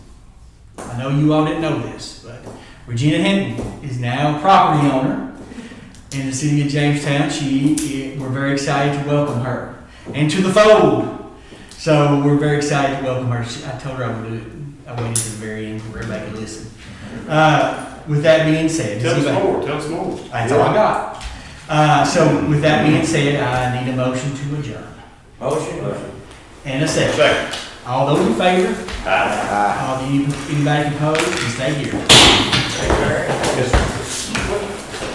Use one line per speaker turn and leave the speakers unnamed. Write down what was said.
I know you all didn't know this, but Regina Hinton is now a property owner in the city of Jamestown. She, eh, we're very excited to welcome her and to the fold. So we're very excited to welcome her. She- I told her I would do it. I waited to the very end for everybody to listen. Uh, with that being said, does
Tell us
anybody-
more, tell us more.
that's all I got. Uh, so with that being said, I need a motion to adjourn.
Motion.
And a second.
Second.
All those in favor,
Aye.
all the, anybody opposed, can stay here.
Second.
Yes, sir.